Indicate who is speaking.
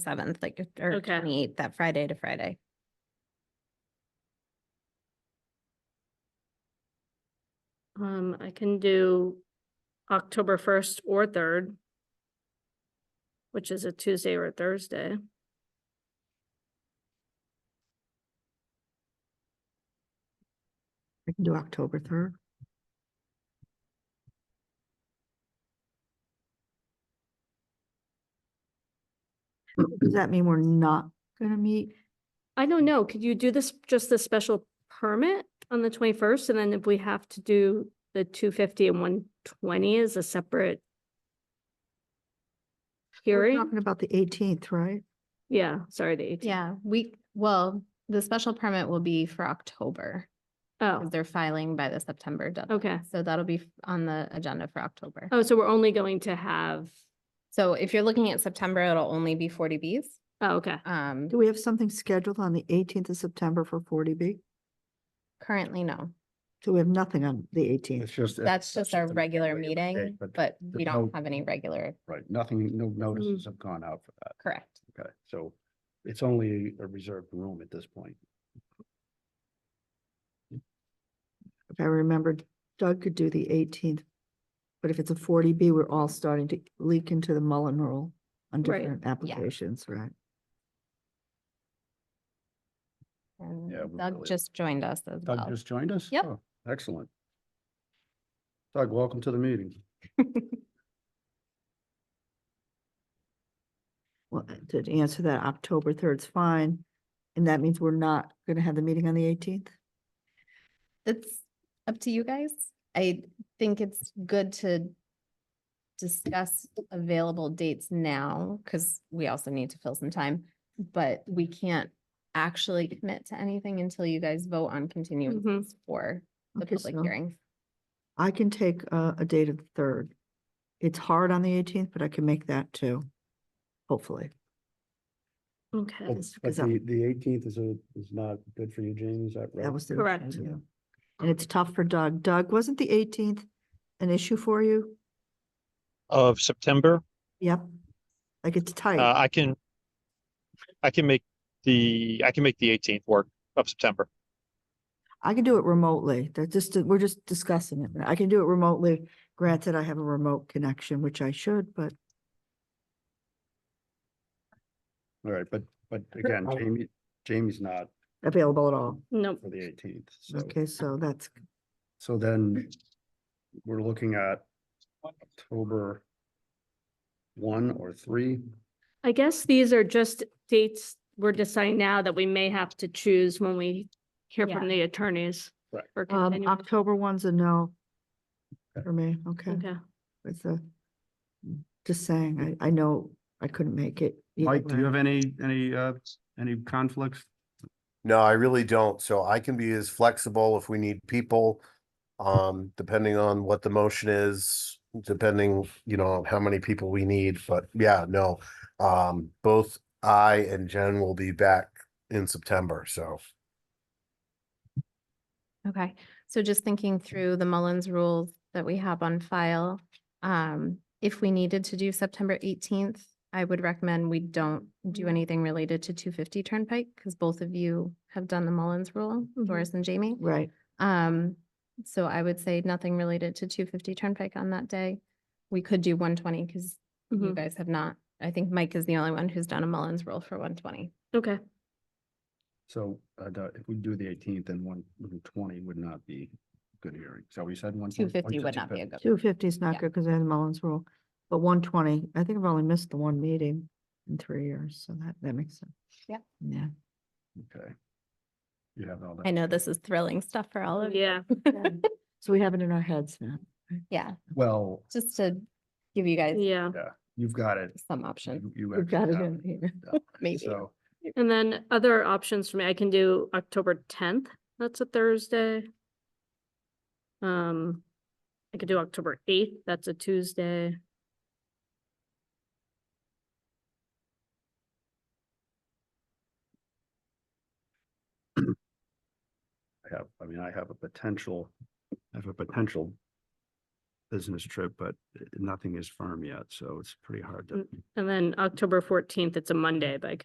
Speaker 1: seventh, like, or
Speaker 2: Okay.
Speaker 1: twenty-eighth, that Friday to Friday.
Speaker 2: Um, I can do October first or third. Which is a Tuesday or a Thursday.
Speaker 3: I can do October third. Does that mean we're not gonna meet?
Speaker 2: I don't know, could you do this, just the special permit on the twenty-first, and then if we have to do the two fifty and one twenty as a separate
Speaker 3: We're
Speaker 2: hearing?
Speaker 3: Talking about the eighteenth, right?
Speaker 2: Yeah, sorry, the eighteenth.
Speaker 1: Yeah, we, well, the special permit will be for October.
Speaker 2: Oh,
Speaker 1: 'cause They're filing by the September deadline.
Speaker 2: okay.
Speaker 1: So that'll be f- on the agenda for October.
Speaker 2: Oh, so we're only going to have,
Speaker 1: So if you're looking at September, it'll only be forty Bs.
Speaker 2: oh, okay.
Speaker 1: Um,
Speaker 3: Do we have something scheduled on the eighteenth of September for forty B?
Speaker 1: currently, no.
Speaker 3: So we have nothing on the
Speaker 4: It's
Speaker 3: eighteenth.
Speaker 4: just.
Speaker 1: That's just our
Speaker 4: the
Speaker 1: regular
Speaker 4: way it was
Speaker 1: meeting,
Speaker 4: made, But,
Speaker 1: but we
Speaker 4: there's
Speaker 1: don't
Speaker 4: no-
Speaker 1: have any regular,
Speaker 4: right, nothing, no
Speaker 1: Mm-hmm.
Speaker 4: notices have gone out for that.
Speaker 1: correct.
Speaker 4: Okay, so it's only a reserved room at this point.
Speaker 3: If I remembered, Doug could do the eighteenth. But if it's a forty B, we're all starting to leak into the Mullen rule on
Speaker 2: Right.
Speaker 3: different applications, right?
Speaker 1: And
Speaker 4: Yeah, we
Speaker 1: Doug
Speaker 4: really-
Speaker 1: just joined us as
Speaker 4: Doug
Speaker 1: well.
Speaker 4: just joined us?
Speaker 1: Yep.
Speaker 4: Oh, Excellent. Doug, welcome to the meeting.
Speaker 3: Well, uh, to answer that, October third's fine, and that means we're not gonna have the meeting on the eighteenth?
Speaker 1: It's up to you guys. I think it's good to discuss available dates now, because we also need to fill some time. But we can't actually commit to anything until you guys vote on continuances for the
Speaker 3: Okay,
Speaker 1: public
Speaker 3: so
Speaker 1: hearing.
Speaker 3: I can take a, a date of the third. It's hard on the eighteenth, but I can make that too, hopefully.
Speaker 2: Okay,
Speaker 4: But
Speaker 3: Yes,
Speaker 4: Oh, but
Speaker 3: because I'm-
Speaker 4: the, the eighteenth is a, is not good for you, Jamie, is that right?
Speaker 3: That was the.
Speaker 2: Correct.
Speaker 3: issue, yeah. And it's tough for Doug. Doug, wasn't the eighteenth an issue for you?
Speaker 5: of September.
Speaker 3: Yep. Like it's
Speaker 5: Uh,
Speaker 3: tight.
Speaker 5: I can, I can make the, I can make the eighteenth work of September.
Speaker 3: I can do it remotely. They're just, we're just discussing it. I can do it remotely. Granted, I have a remote connection, which I should, but
Speaker 4: All right, but, but again,
Speaker 3: Oh.
Speaker 4: Jamie, Jamie's not
Speaker 3: available at all.
Speaker 2: nope.
Speaker 4: for the eighteenth, so,
Speaker 3: Okay, so that's
Speaker 4: so then we're looking at October one or three.
Speaker 2: I guess these are just dates we're deciding now that we may have to choose when we hear from the attorneys.
Speaker 4: Right.
Speaker 2: for
Speaker 3: Um,
Speaker 2: continuing.
Speaker 3: October one's a no
Speaker 4: Okay.
Speaker 3: for me, okay,
Speaker 2: Okay,
Speaker 3: it's a, just saying, I, I know I couldn't make it. either
Speaker 4: Mike, do
Speaker 3: way.
Speaker 4: you have any, any, uh, any conflicts?
Speaker 6: No, I really don't. So I can be as flexible if we need people. Um, depending on what the motion is, depending, you know, how many people we need, but yeah, no. Um, both I and Jen will be back in September, so.
Speaker 1: Okay, so just thinking through the Mullins rules that we have on file. Um, if we needed to do September eighteenth, I would recommend we don't do anything related to two fifty Turnpike, because both of you have done the Mullins rule,
Speaker 2: Mhm.
Speaker 1: Doris and Jamie.
Speaker 3: Right,
Speaker 1: Um, so I would say nothing related to two fifty Turnpike on that day. We could do one twenty, because you
Speaker 2: mhm,
Speaker 1: guys have not. I think Mike is the only one who's done a Mullins rule for one twenty.
Speaker 2: okay,
Speaker 4: So, uh, the- if we do the eighteenth, then one, twenty would not be good hearing. So we said one.
Speaker 1: Two fifty would not be a good.
Speaker 3: two fifty is not
Speaker 1: Yeah.
Speaker 3: good because I had the Mullins rule, but one twenty, I think I've only missed the one meeting in three years, so that, that makes sense.
Speaker 1: Yep.
Speaker 3: Yeah,
Speaker 4: Okay. You have all that.
Speaker 1: I know this is thrilling stuff for all of you.
Speaker 2: yeah,
Speaker 3: so we have it in our heads now.
Speaker 1: Yeah,
Speaker 4: Well,
Speaker 1: just to give you guys
Speaker 2: yeah.
Speaker 4: you've got it.
Speaker 1: some options,
Speaker 4: You- you
Speaker 3: We've got
Speaker 4: actually
Speaker 3: it
Speaker 4: have
Speaker 3: in here.
Speaker 1: maybe.
Speaker 4: So,
Speaker 2: And then other options for me, I can do October tenth, that's a Thursday. Um, I could do October eighth, that's a Tuesday.
Speaker 4: I have, I mean, I have a potential, I have a potential business trip, but nothing is firm yet, so it's pretty hard to.
Speaker 1: Mm.
Speaker 2: And then October fourteenth, it's a Monday, but I